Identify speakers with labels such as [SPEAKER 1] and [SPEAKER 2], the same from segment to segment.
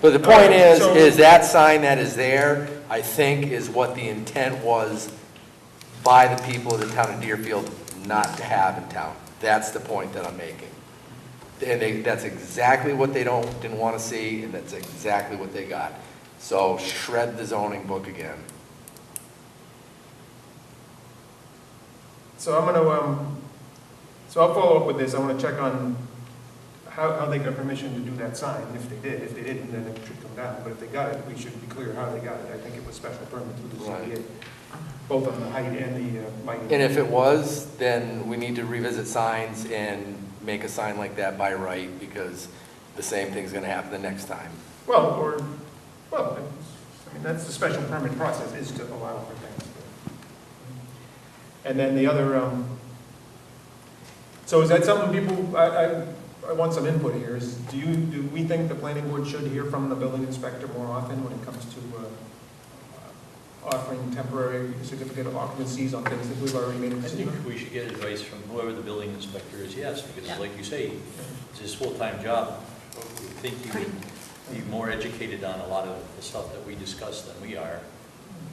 [SPEAKER 1] But the point is,
[SPEAKER 2] So-
[SPEAKER 1] is that sign that is there, I think, is what the intent was by the people of the town of Deerfield not to have in town. That's the point that I'm making. And they, that's exactly what they don't, didn't want to see, and that's exactly what they got. So shred the zoning book again.
[SPEAKER 2] So I'm gonna, um, so I'll follow up with this, I wanna check on how, how they got permission to do that sign, if they did, if they didn't, then it should come down, but if they got it, we should be clear how they got it, I think it was special permit through the ZBA, both on the height and the uh, lighting.
[SPEAKER 1] And if it was, then we need to revisit signs and make a sign like that by right, because the same thing's gonna happen the next time.
[SPEAKER 2] Well, or, well, I mean, that's the special permit process, is to allow for things. And then the other, um, so is that something people, I, I, I want some input here, is, do you, do we think the planning board should hear from the building inspector more often when it comes to, uh, offering temporary certificate of occupancies on things that we've already made a
[SPEAKER 3] I
[SPEAKER 2] decision
[SPEAKER 3] think
[SPEAKER 2] on?
[SPEAKER 3] we should get advice from whoever the building inspector is, yes, because like you say, it's his full-time job. I think you would be more educated on a lot of the stuff that we discuss than we are.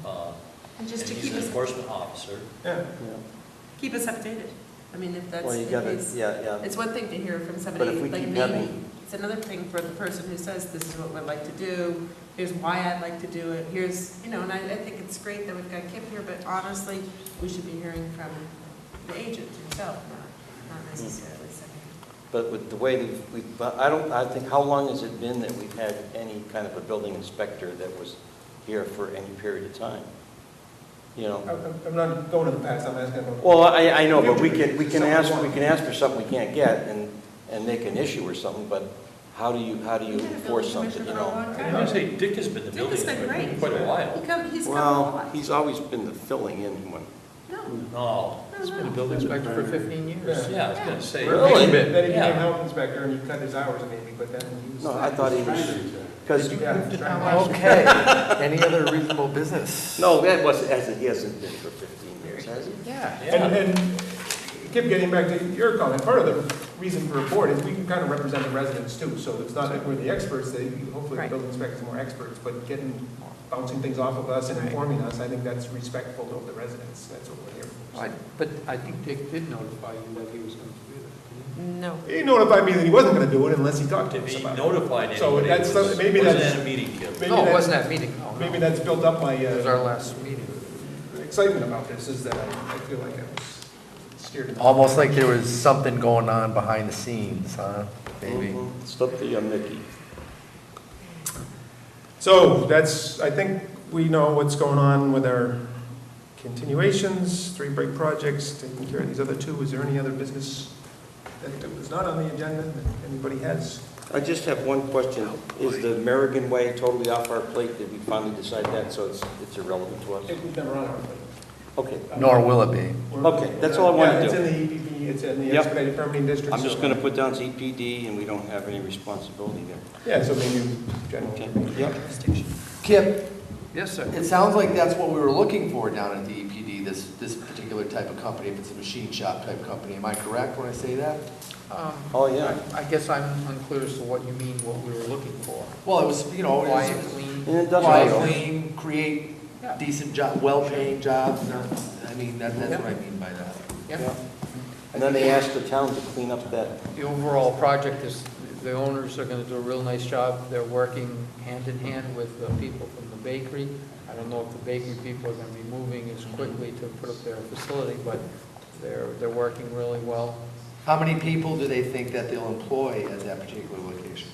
[SPEAKER 3] Uh,
[SPEAKER 4] And
[SPEAKER 3] And
[SPEAKER 4] just to
[SPEAKER 3] he's
[SPEAKER 4] keep
[SPEAKER 3] an
[SPEAKER 4] us,
[SPEAKER 3] enforcement officer.
[SPEAKER 2] Yeah,
[SPEAKER 4] keep us updated. I mean, if that's
[SPEAKER 5] Well, you
[SPEAKER 4] the
[SPEAKER 5] gotta,
[SPEAKER 4] case.
[SPEAKER 5] yeah, yeah.
[SPEAKER 4] It's one thing to hear from
[SPEAKER 5] But
[SPEAKER 4] somebody
[SPEAKER 5] if we
[SPEAKER 4] like
[SPEAKER 5] keep
[SPEAKER 4] me.
[SPEAKER 5] having-
[SPEAKER 4] It's another thing for the person who says, this is what we'd like to do, here's why I'd like to do it, here's, you know, and I, I think it's great that we've got Kip here, but honestly, we should be hearing from the agent himself, not, not necessarily somebody.
[SPEAKER 5] But with the way that we've, but I don't, I think, how long has it been that we've had any kind of a building inspector that was here for any period of time? You know,
[SPEAKER 2] I'm, I'm not going to the past, I'm asking about.
[SPEAKER 5] well, I, I know, but we can, we can ask, we can ask for something we can't get and, and make an issue or something, but how do you, how do you
[SPEAKER 4] We've had a building
[SPEAKER 5] enforce something,
[SPEAKER 4] commissioner
[SPEAKER 5] you
[SPEAKER 4] for a
[SPEAKER 5] know?
[SPEAKER 3] I'm
[SPEAKER 4] long time.
[SPEAKER 3] gonna say Dick has been the
[SPEAKER 4] Dick
[SPEAKER 3] building
[SPEAKER 4] has been
[SPEAKER 3] inspector for
[SPEAKER 4] great.
[SPEAKER 3] quite a while.
[SPEAKER 4] He come, he's come a
[SPEAKER 5] Well,
[SPEAKER 4] lot.
[SPEAKER 5] he's always been the filling in one.
[SPEAKER 4] No,
[SPEAKER 3] No,
[SPEAKER 4] no, no.
[SPEAKER 6] building inspector for 15 years.
[SPEAKER 3] yeah, I was gonna say.
[SPEAKER 5] Really?
[SPEAKER 2] Then he
[SPEAKER 3] Yeah.
[SPEAKER 2] became health inspector and he cut his hours maybe, but then he was.
[SPEAKER 5] No, I thought he was, because,
[SPEAKER 2] Yeah.
[SPEAKER 1] Okay, any other reasonable business?
[SPEAKER 5] no, that wasn't, hasn't- he hasn't been for 15 years, has he?
[SPEAKER 6] Yeah.
[SPEAKER 2] And,
[SPEAKER 3] Yeah,
[SPEAKER 2] and Kip, getting back to your comment, part of the reason for a board is we can kind of represent the residents too, so it's not that we're the experts, they, hopefully the
[SPEAKER 4] Right.
[SPEAKER 2] building inspector's more experts, but getting, bouncing things off of us and informing us, I think that's respectful of the residents, that's what we're here
[SPEAKER 6] I-
[SPEAKER 2] for.
[SPEAKER 6] But I think Dick did notify you that he was going to do that.
[SPEAKER 4] No.
[SPEAKER 2] He notified me that he wasn't gonna do it unless he talked to
[SPEAKER 3] if
[SPEAKER 2] us
[SPEAKER 3] he
[SPEAKER 2] about it.
[SPEAKER 3] notified
[SPEAKER 2] So
[SPEAKER 3] anybody, it
[SPEAKER 2] that's
[SPEAKER 3] was,
[SPEAKER 2] some-
[SPEAKER 3] was
[SPEAKER 2] maybe that's-
[SPEAKER 3] in a meeting, Kid.
[SPEAKER 2] Maybe
[SPEAKER 6] No, it
[SPEAKER 2] that-
[SPEAKER 6] wasn't that meeting, no, no.
[SPEAKER 2] Maybe that's built up my,
[SPEAKER 6] It was
[SPEAKER 2] uh,
[SPEAKER 6] our last meeting.
[SPEAKER 2] excitement about this, is that I I feel like I was steered. in the-
[SPEAKER 1] Almost like there was something going on behind the scenes, huh? Maybe.
[SPEAKER 5] Mm-hmm. It's up to you, Mickey.
[SPEAKER 2] So that's, I think we know what's going on with our continuations, three break projects, taking care of these other two. Is there any other business that was not on the agenda that anybody has?
[SPEAKER 5] I just have one question. Is the American Way totally off our plate? Did we finally decide that, so it's, it's irrelevant to us?
[SPEAKER 2] It was never on our
[SPEAKER 5] Okay,
[SPEAKER 1] Nor will it be.
[SPEAKER 2] plate.
[SPEAKER 5] Okay, that's all I wanted to do.
[SPEAKER 2] Yeah, it's in the EPP, it's in the
[SPEAKER 5] Yep.
[SPEAKER 2] expedited permitting district.
[SPEAKER 5] I'm just
[SPEAKER 2] so-
[SPEAKER 5] gonna put down ZPD, and we don't have any responsibility there.
[SPEAKER 2] Yeah, so maybe general.
[SPEAKER 5] Okay, yep.
[SPEAKER 1] Kip,
[SPEAKER 6] Yes, sir.
[SPEAKER 1] it sounds like that's what we were looking for down at the EPD, this, this particular type of company, if it's a machine shop type company. Am I correct when I say that?
[SPEAKER 6] Um,
[SPEAKER 5] Oh, yeah.
[SPEAKER 6] I I guess I'm unclear as to what you mean, what we were looking for.
[SPEAKER 1] Well, it was, you
[SPEAKER 5] Oh,
[SPEAKER 1] know, it
[SPEAKER 6] Quiet,
[SPEAKER 1] was
[SPEAKER 6] clean.
[SPEAKER 5] And it
[SPEAKER 1] why
[SPEAKER 5] doesn't,
[SPEAKER 1] clean, create
[SPEAKER 6] Yeah.
[SPEAKER 1] decent job, well-paying jobs. I mean, that, that's what I mean by that.
[SPEAKER 6] Yeah.
[SPEAKER 5] and then they asked the town to clean up that,
[SPEAKER 6] The overall project is, the owners are going to do a real nice job. They're working hand in hand with the people from the bakery. I don't know if the bakery people are going to be moving as quickly to put up their facility, but they're, they're working really well.
[SPEAKER 1] How many people do they think that they'll employ at that particular location?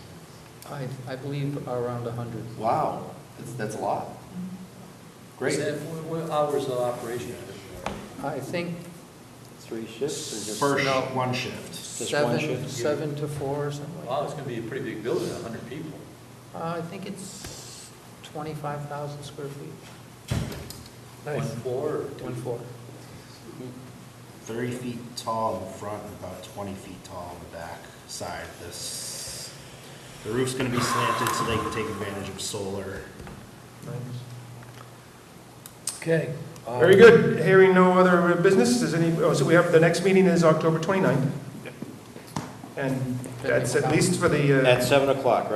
[SPEAKER 6] I, I believe around 100.
[SPEAKER 1] Wow, that's, that's a lot.
[SPEAKER 3] Is
[SPEAKER 1] Great.
[SPEAKER 6] Mm-hmm.
[SPEAKER 3] that- What what hours of operation?
[SPEAKER 6] I think
[SPEAKER 5] three shifts or just?
[SPEAKER 7] one shift.
[SPEAKER 5] Just one
[SPEAKER 6] seven,
[SPEAKER 5] shift?
[SPEAKER 6] seven to four or something
[SPEAKER 3] Wow,
[SPEAKER 6] like
[SPEAKER 3] it's
[SPEAKER 6] that.
[SPEAKER 3] gonna be a pretty big building, a hundred people.
[SPEAKER 6] Uh, I think it's 25,000 square feet,
[SPEAKER 3] One floor or two
[SPEAKER 6] one floor.
[SPEAKER 7] 30 feet tall in front, and about 20 feet tall on the back side. This, the roof's gonna be slanted so they can take advantage of solar.
[SPEAKER 1] Okay.
[SPEAKER 2] Very good. Hearing no other business, is any, oh, so we have, the next meeting is October 29th. And that's at least for the. uh,
[SPEAKER 5] At seven o'clock, right?